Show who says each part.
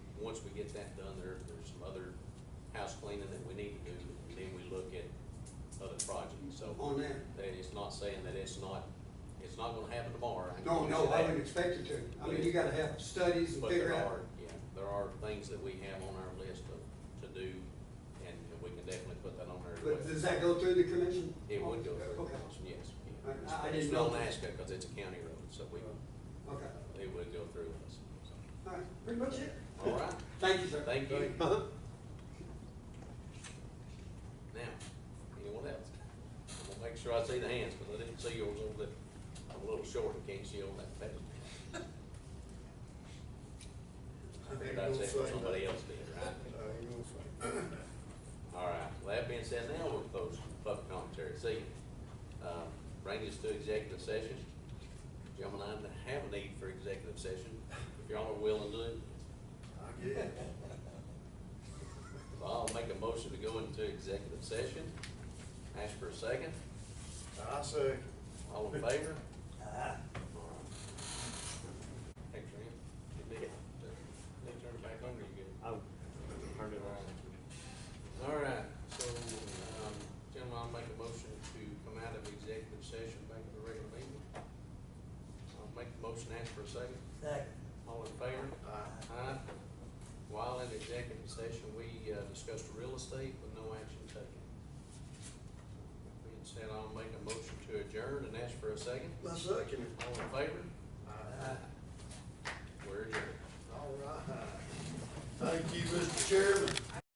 Speaker 1: once we get that done, there, there's some other house cleaning that we need to do, and then we look at other projects, so.
Speaker 2: On that.
Speaker 1: That it's not saying that it's not, it's not gonna happen tomorrow. I can
Speaker 2: No,
Speaker 1: promise
Speaker 2: no,
Speaker 1: you
Speaker 2: I
Speaker 1: that.
Speaker 2: wouldn't expect it to. I mean, you gotta have studies and
Speaker 1: But
Speaker 2: figure
Speaker 1: there are,
Speaker 2: out.
Speaker 1: yeah, there are things that we have on our list to, to do, and we can definitely put that on there.
Speaker 2: But does that go through the commission?
Speaker 1: It would go through the
Speaker 2: Okay,
Speaker 1: council, yes. yeah.
Speaker 2: I- I- I
Speaker 1: It's
Speaker 2: didn't
Speaker 1: not
Speaker 2: know. Uh,
Speaker 1: Alaska, because it's a county road, so we,
Speaker 2: okay.
Speaker 1: it would go through us. so.
Speaker 2: All right, pretty much it.
Speaker 1: All right,
Speaker 2: Thank you, sir.
Speaker 1: thank you. Now,
Speaker 2: Uh-huh.
Speaker 1: anyone else? I'm gonna make sure I see the hands, because I didn't see yours over there. I'm a little short, I can't see on that page. I think I said what somebody else did, right? All right, well, that being said, now we'll close public commentary this evening. Uh, Bring us to executive session. Gentlemen, I have a need for executive session, if y'all are willing to do it. So I'll make a motion to go into executive session. Ask for a second.
Speaker 3: I say.
Speaker 1: All in favor? Thanks, Randy. You did. They turned it back on, you good?
Speaker 4: I turned it around.
Speaker 1: All right, so, um, gentlemen, I'll make a motion to come out of executive session back to the regular meeting. I'll make the motion, ask for a second.
Speaker 5: Second.
Speaker 1: All in favor? Aye. While in executive session, we uh, discussed real estate with no action taken. Being said, I'll make a motion to adjourn and ask for a second.
Speaker 3: My second.
Speaker 1: All in favor?
Speaker 3: Aye.
Speaker 1: We're adjourned.
Speaker 3: All right. Thank you, Mr. Chairman.